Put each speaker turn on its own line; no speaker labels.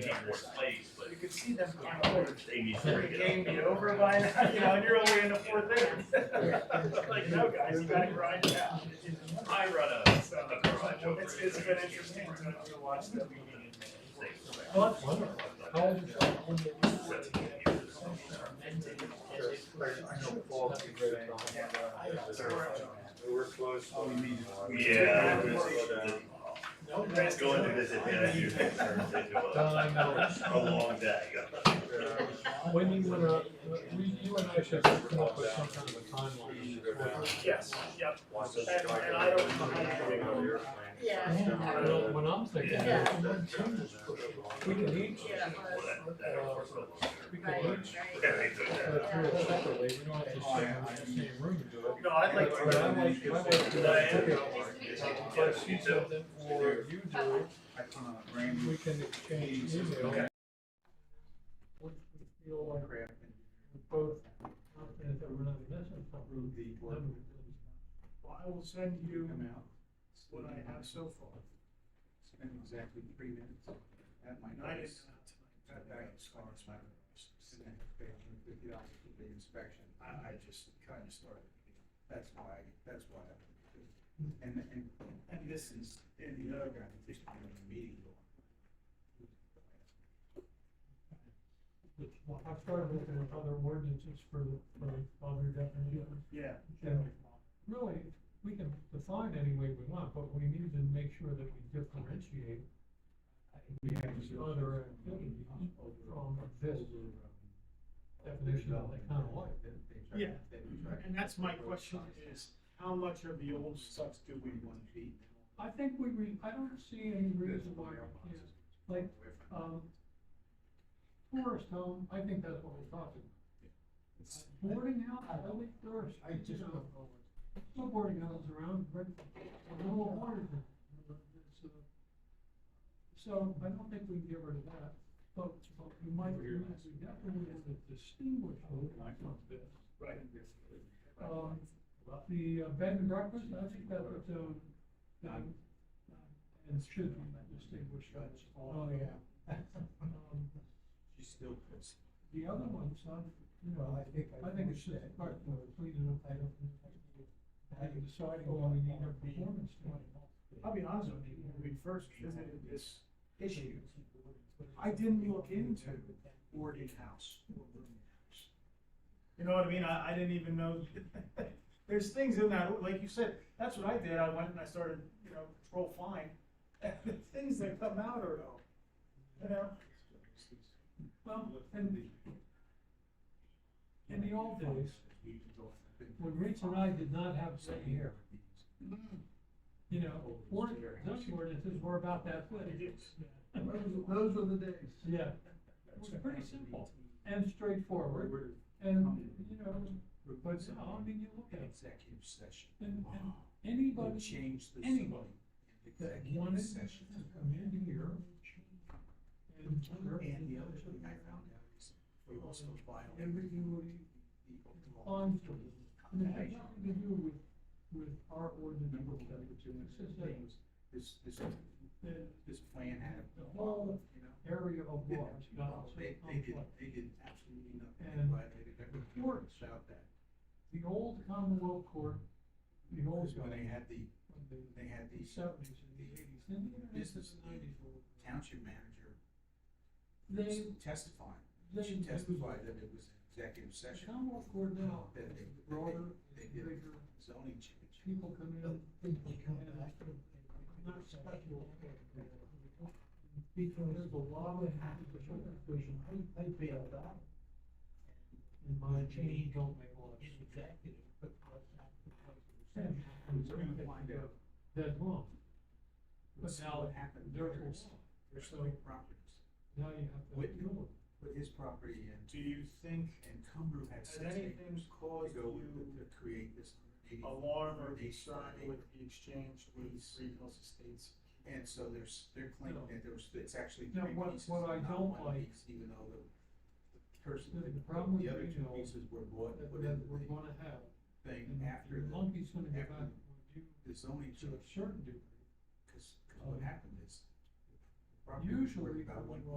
need more plays, but
You could see them going over.
they need
The
to
game
get
be over by now, you know, and you're only in the fourth inning. Like, no, guys, you gotta grind it out.
up. I run a,
So,
a garage over.
it's,
it.
it's been interesting to to watch them.
uh,
We were close.
Yeah. it was- the- Going to visit manager
Yeah.
turns into a, a long day.
When you wanna, uh, we, you and I should come up with some kind of a timeline.
Yes, yep. And, and I don't. know
Yeah.
I don't- uh, When I'm thinking,
Yeah.
when changes, we can each,
Yeah.
Well, that- that works a lot.
we
Right,
can each,
Yeah,
right.
they do
uh,
that.
do it separately, we don't have to share in the same room to do it.
No, I'd like
But I
to.
like, I like to do it. If you do something or you do it, we can exchange email. What we feel like we're both confident that we're not missing something.
Well, I will send you what I have so far.
Spent exactly three minutes at
And I didn't know tonight.
Cut back as far as my. Fifty dollars for the inspection. I, I just kind of started. That's why, that's why. I- And, and, and this is, and the other guy, this is a meeting.
I started looking at other ordinances for the, for other definitions.
Yeah.
And really, we can define any way we want, but we need to make sure that we differentiate these other activities from this definition of the kind of life.
Yeah, and that's my question is, how much of the old stuff do we want to eat?
I think we, re I don't see any reason why, we can't. like, um, tourist home, I think that's what we're talking about. Boarding house, I think tourist, I just, no boarding houses around, but a little harder than. it's, uh, So I don't think we can get rid of that, but, but we might, we definitely have to distinguish those from this.
Right.
Um, the uh, bed and breakfast, I think that would, um, um, and should be distinguished. Oh, yeah. Um,
She's still pissed.
The other ones, I, you know, I think, I think it's just part of the freedom of item. And deciding when we need a performance plan.
I'll be honest with you, when we first visited this issue, I didn't look into boarding house. or rooming house. You know what I mean? I, I didn't even know, there's things in that, like you said, that's what I did, I went and I started, you know, control flying. And the things that come out are, oh, you know,
Well, and in the old days, when Rich and I did not have say here, you know, or, those ordinances were about that big.
Those were the days.
Yeah, it was pretty simple and straightforward. And, you know, but now, I mean, you look at it,
Executive session.
and, and anybody,
Change the.
anybody that wanted
Executive
to
session.
come in here and serve
And the other thing I found out is we also violate
everybody
the law.
on to it. I mean, it has nothing to do with, with our ordinance.
Remember what we were doing,
It's just that
this, this,
the
this plan had
The
a
whole-
you know?
area of
Yeah,
law is not so
They, they did,
complex.
they did absolutely nothing,
And-
violated every ordinance out that.
The old Commonwealth Court, the old
Because when they
government,
had the,
the
they had the
seventies and the eighties, and the
Business
nineties, nineties.
township manager
They,
testifying,
they.
she testified that it was executive
The
session,
Commonwealth Court now,
that they,
broader,
broader
they
they
did,
did. zoning change.
people come in. Because there's a lot of vision, I, I feel that. And my change don't make a lot of sense.
We're gonna find out,
That's wrong,
but
But now
now what happened,
they're,
they're,
now
they're selling properties,
you have to. deal
with his property and,
do you think
and Cumberland had
has
six acres
anything
to
caused
go with
you
it to create this. 180
alarm or
acre
concern
side.
with the exchange with Three Hills Estates?
And so there's, they're claiming that there was, it's actually
No,
three
what-
pieces,
what I
not
don't
one
like-
piece, even though the the person,
The-
that-
the problem
the
with
other two
regional
pieces were bought,
with
put
That
in
we're
the
gonna have.
thing
And
after
your
the,
Monkey's gonna go back
after
and do,
the zoning
to a
change,
certain degree.
cause, 'cause what happened is. the property was worth
Usually,
about
when you
one